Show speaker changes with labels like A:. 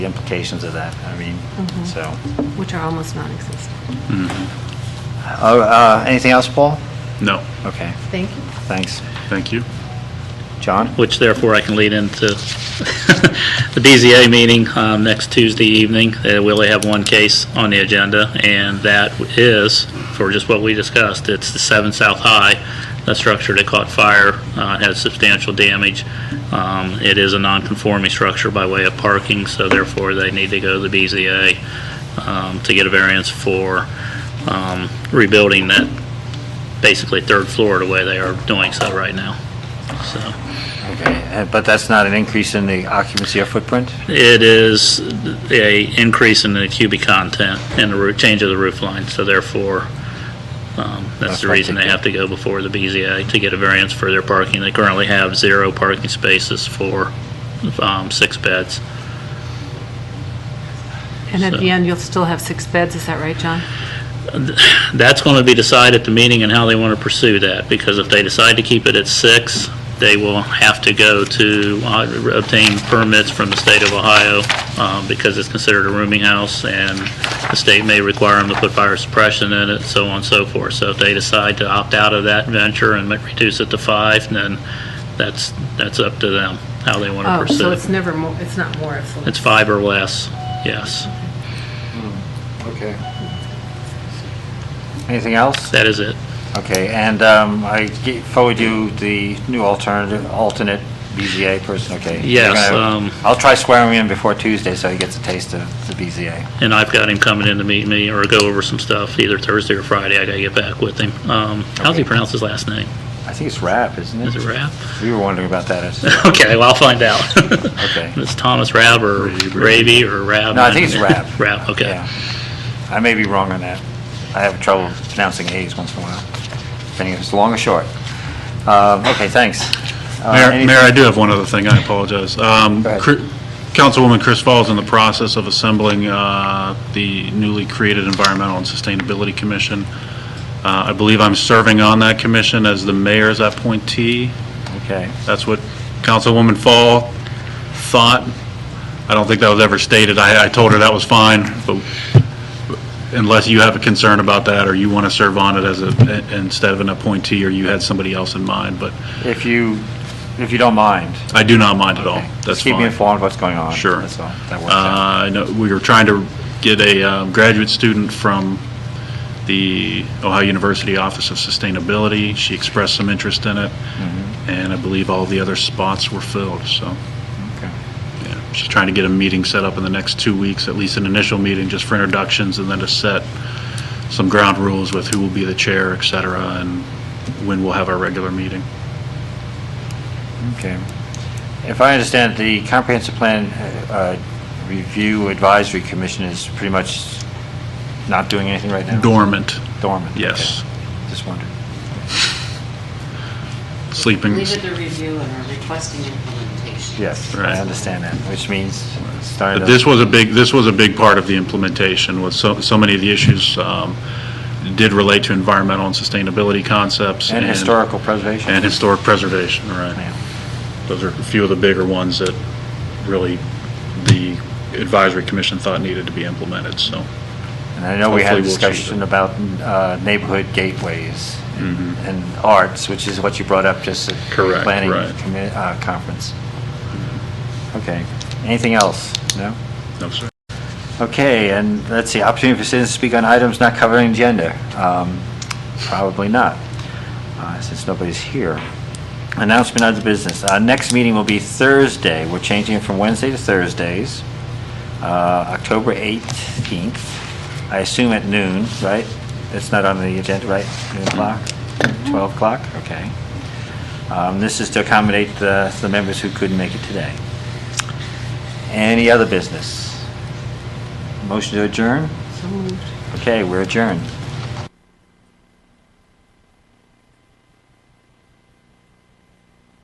A: the implications of that, I mean, so.
B: which are almost non-existent.
A: Uh, uh, Anything else, Paul?
C: No,
A: Okay,
B: Thank you.
A: thanks.
C: thank you.
A: John?
D: which therefore I can lead into the BZA meeting um, next Tuesday evening. Uh, We only have one case on the agenda, and that is, for just what we discussed, it's the 7 South High, that structure that caught fire, uh, had substantial damage. Um, It is a non-conforming structure by way of parking, so therefore they need to go to the BZA um, to get a variance for um, rebuilding that, basically third floor the way they are doing so right now, so.
A: Okay, uh, but that's not an increase in the occupancy or footprint?
D: It is a increase in the cubic content and the roo- change of the roof line, so therefore, um, that's
A: That's
D: the
A: what I
D: reason they
A: think.
D: have to go before the BZA to get a variance for their parking. They currently have zero parking spaces for um, six beds.
B: And at
D: So-
B: the end, you'll still have six beds, is that right, John?
D: That's going to be decided at the meeting and how they want to pursue that, because if they decide to keep it at six, they will have to go to uh, obtain permits from the state of Ohio, um, because it's considered a rooming house, and the state may require them to put fire suppression in it, so on and so forth. So if they decide to opt out of that venture and reduce it to five, then that's, that's up to them, how they want to
B: Oh, so
D: pursue
B: it's
D: it.
B: never more, it's not more, it's less.
D: It's five or less, yes.
A: Okay. Anything else?
D: That is it.
A: Okay, and um, I ge- forward you the new alternative, alternate BZA person, okay? You're
D: Yes,
A: gonna-
D: um,
A: I'll try swearing him in before Tuesday so he gets a taste of the BZA.
D: And I've got him coming in to meet me or go over some stuff, either Thursday or Friday. I gotta get back with him. Um, how's he
A: Okay.
D: pronounce his last name?
A: I think it's Rap, isn't
D: Is
A: it?
D: it Rab?
A: We were wondering about that. It's-
D: Okay, well, I'll find out.
A: Okay.
D: It's Thomas Rab or Raby or Rab?
A: No, I think it's Rab.
D: Rab, okay.
A: Yeah. I may be wrong on that. I have trouble pronouncing A's once in a while, depending if it's long or short. Um, Okay, thanks. Uh,
C: Mayor,
A: anything-
C: Mayor, I do have one other thing, I apologize. Um,
A: Go ahead.
C: Cr- Councilwoman Chris Fall is in the process of assembling uh, the newly created Environmental and Sustainability Commission. Uh, I believe I'm serving on that commission as the mayor's appointee.
A: Okay,
C: That's what Councilwoman Fall thought. I don't think that was ever stated. I, I told her that was fine, but unless you have a concern about that, or you want to serve on it as a, instead of an appointee, or you had somebody else in mind, but
A: if you, if you don't mind.
C: I do not mind at all.
A: okay.
C: Oh, That's
A: Just keep me
C: fine.
A: informed what's going on.
C: Sure.
A: That's all. That
C: Uh,
A: works out.
C: I know, we were trying to get a um, graduate student from the Ohio University Office of Sustainability. She expressed some interest in it,
A: Mm-hmm.
C: and I believe all the other spots were filled, so.
A: Okay.
C: Yeah, She's trying to get a meeting set up in the next two weeks, at least an initial meeting, just for introductions, and then to set some ground rules with who will be the chair, et cetera, and when we'll have our regular meeting.
A: Okay. If I understand, the Comprehensive Plan uh, Review Advisory Commission is pretty much not doing anything right now?
C: Dormant,
A: Dormant. okay.
C: yes.
A: Just wondered.
C: Sleeping,
E: We did the review and are requesting implementation.
A: Yes, I
C: Right.
A: understand that, which means it's starting
C: But
A: to...
C: this was a big, this was a big part of the implementation, with so, so many of the issues um, did relate to environmental and sustainability concepts.
A: And historical preservation.
C: And historic preservation,
A: Yeah.
C: right. Those are a few of the bigger ones that really the advisory commission thought needed to be implemented, so.
A: And I know we had a
C: Hopefully we'll achieve
A: discussion about uh, neighborhood gateways and and arts, which is what you brought up just at the
C: Mm-hmm. Correct,
A: planning
C: right.
A: commi- uh, conference. Okay, anything else? No?
C: No, sir.
A: Okay, and let's see, opportunity for citizens to speak on items not covering agenda. Um, Probably not, uh, since nobody's here. Announcement of the business. Our next meeting will be Thursday. We're changing it from Wednesday to Thursdays, uh, October 18th, I assume at noon, right? It's not on the agenda, right? Noon o'clock? 12 o'clock? Okay. Um, This is to accommodate the the members who couldn't make it today. Any other business? Motion to adjourn?
B: So moved.
A: Okay, we're adjourned.